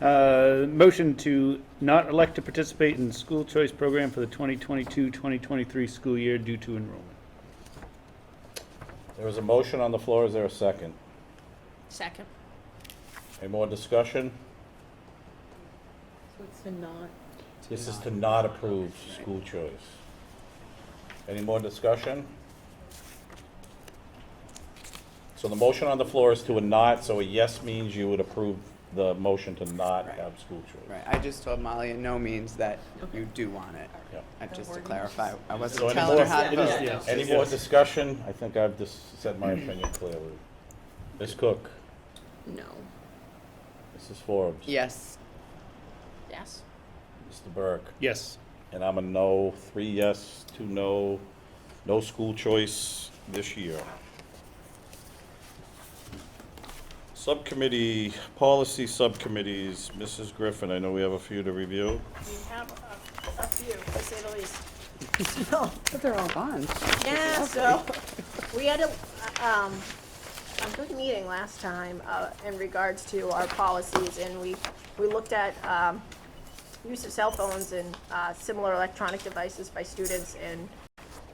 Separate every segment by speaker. Speaker 1: Uh, Motion to not elect to participate in school choice program for the 2022-2023 school year due to enrollment.
Speaker 2: There is a motion on the floor, is there a second?
Speaker 3: Second.
Speaker 2: Any more discussion?
Speaker 4: So it's a not,
Speaker 2: This is to not approve school choice. Any more discussion? So the motion on the floor is to a not, so a yes means you would approve the motion to not
Speaker 5: Right.
Speaker 2: have school choice.
Speaker 5: Right, I just told Molly in no means that you do want it.
Speaker 2: Yeah.
Speaker 5: Uh, Just to clarify, I
Speaker 2: So
Speaker 5: wasn't
Speaker 2: any
Speaker 5: telling her
Speaker 2: more-
Speaker 5: how to
Speaker 1: It is,
Speaker 5: vote.
Speaker 1: yes.
Speaker 2: Any more discussion? I think I've just said my opinion clearly. Ms. Cook,
Speaker 3: No.
Speaker 2: Mrs. Forbes.
Speaker 5: Yes,
Speaker 3: Yes.
Speaker 2: Mr. Burke.
Speaker 1: Yes.
Speaker 2: And I'm a no, three yes, two no, no school choice this year. Subcommittee, policy subcommittees, Mrs. Griffin, I know we have a few to review.
Speaker 6: We have a, a few, to say the least.
Speaker 5: but they're all gone.
Speaker 6: Yeah, so, we had a, um, a good meeting last time, uh, in regards to our policies, and we, we looked at, um, use of cell phones and, uh, similar electronic devices by students, and,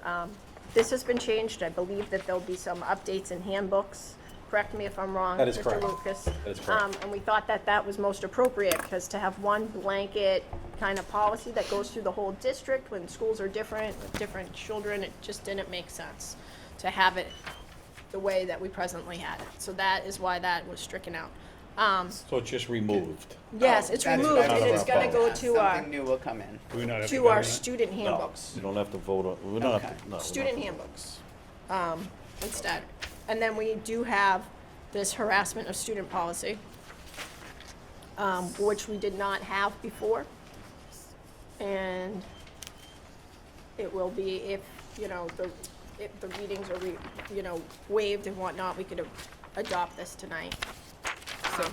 Speaker 6: um, this has been changed, I believe that there'll be some updates in handbooks, correct me if I'm wrong.
Speaker 2: That is correct.
Speaker 6: Mr. Lucas.
Speaker 2: That is correct.
Speaker 6: Um, and we thought that that was most appropriate, because to have one blanket kind of policy that goes through the whole district when schools are different, with different children, it just didn't make sense to have it the way that we presently had it. So that is why that was stricken out. Um,
Speaker 2: So it's just removed.
Speaker 6: yes, it's
Speaker 5: That's-
Speaker 6: removed,
Speaker 2: that's
Speaker 6: and it's
Speaker 2: what I
Speaker 6: gonna go
Speaker 5: Uh,
Speaker 6: to our,
Speaker 5: Something new will come in.
Speaker 1: Do we not have to
Speaker 6: to
Speaker 1: vote on
Speaker 6: our
Speaker 1: that?
Speaker 6: student handbooks,
Speaker 2: You don't have to vote on, we don't have
Speaker 5: Okay.
Speaker 2: to, no. we don't have
Speaker 6: student
Speaker 2: to-
Speaker 6: handbooks, um, instead. And then we do have this harassment of student policy, um, which we did not have before. And it will be if, you know, the, if the readings are, re- you know, waived and whatnot, we could a- adopt this tonight. Um,
Speaker 5: Just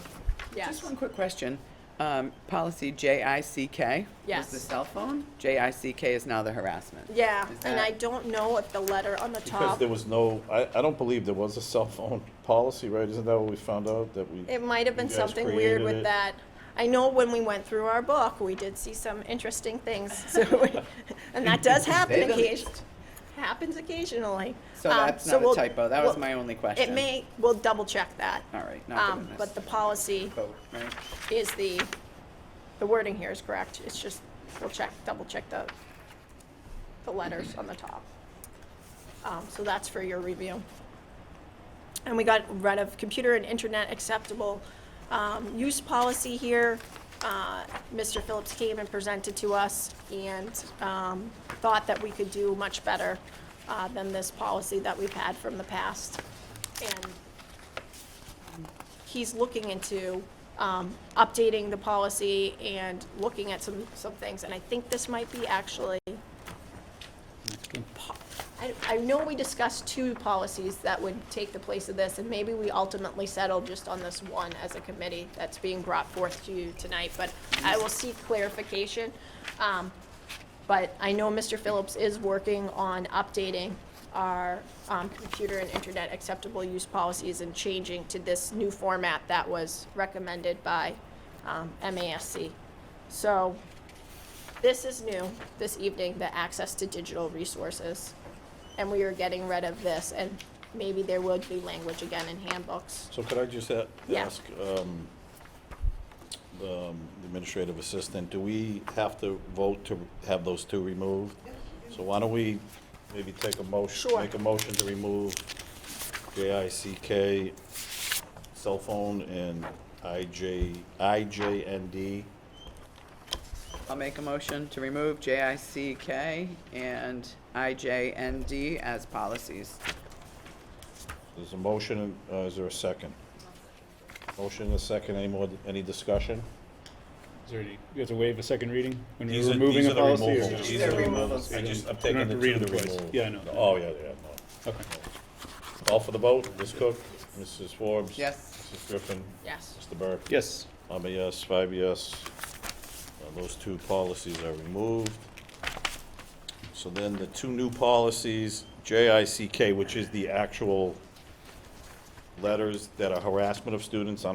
Speaker 6: Yes,
Speaker 5: one quick question. Um, Policy JICK.
Speaker 6: Yes.
Speaker 5: Was the cell phone? JICK is now the harassment.
Speaker 6: yeah,
Speaker 5: Is
Speaker 6: and
Speaker 5: that-
Speaker 6: I don't know if the letter on the
Speaker 2: Because
Speaker 6: top,
Speaker 2: there was no, I, I don't believe there was a cell phone policy, right? Isn't that what we found out, that we?
Speaker 6: it might have been
Speaker 2: you guys
Speaker 6: something weird
Speaker 2: created
Speaker 6: with
Speaker 2: it?
Speaker 6: that. I know when we went through our book, we did see some interesting things, so, we- and that does happen
Speaker 5: They don't-
Speaker 6: occasionally, happens occasionally.
Speaker 5: So
Speaker 6: Um,
Speaker 5: that's not a
Speaker 6: we'll-
Speaker 5: typo. That was
Speaker 6: we'll-
Speaker 5: my only
Speaker 6: It
Speaker 5: question.
Speaker 6: may, we'll double check that.
Speaker 5: All right, not
Speaker 6: Um,
Speaker 5: doing this.
Speaker 6: but the policy
Speaker 5: Vote, right?
Speaker 6: is the, the wording here is correct, it's just, we'll check, double check the, the letters on the top. Um, so that's for your review. And we got rid of computer and internet acceptable, um, use policy here. Uh, Mr. Phillips came and presented to us and, um, thought that we could do much better, uh, than this policy that we've had from the past. And he's looking into um, updating the policy and looking at some, some things. And I think this might be actually, po- I, I know we discussed two policies that would take the place of this, and maybe we ultimately settled just on this one as a committee that's being brought forth to you tonight, but I will seek clarification. Um, But I know Mr. Phillips is working on updating our um, computer and internet acceptable use policies and changing to this new format that was recommended by um, MASC. So this is new this evening, the access to digital resources. And we are getting rid of this, and maybe there will be language again in handbooks.
Speaker 2: So could I just a-
Speaker 6: Yeah.
Speaker 2: ask, um, the um, the administrative assistant, do we have to vote to have those two removed? So why don't we maybe take a motion,
Speaker 6: Sure.
Speaker 2: make a motion to remove JICK cell phone and IJ, IJND?
Speaker 5: I'll make a motion to remove JICK and IJND as policies.
Speaker 2: There's a motion, uh, is there a second? Motion and a second, any more, any discussion?
Speaker 1: Is there any, you have to waive a second reading when
Speaker 2: These
Speaker 1: you're
Speaker 2: are-
Speaker 1: removing
Speaker 2: these
Speaker 1: a
Speaker 2: are the
Speaker 1: policy? or-
Speaker 2: removals. These are the removals. I just, I'm
Speaker 1: You don't
Speaker 2: taking
Speaker 1: have
Speaker 2: the
Speaker 1: to
Speaker 2: two
Speaker 1: read
Speaker 2: to
Speaker 1: them twice.
Speaker 2: remove.
Speaker 1: Yeah, I know.
Speaker 2: Oh, yeah, yeah, no.
Speaker 1: Okay.
Speaker 2: All for the vote, Ms. Cook, Mrs. Forbes?
Speaker 5: Yes.
Speaker 2: Mrs. Griffin?
Speaker 3: Yes.
Speaker 2: Mr. Burke?
Speaker 1: Yes.
Speaker 2: I'm a yes, five yes. Uh, Those two policies are removed. So then the two new policies, JICK, which is the actual letters that are harassment of students, I don't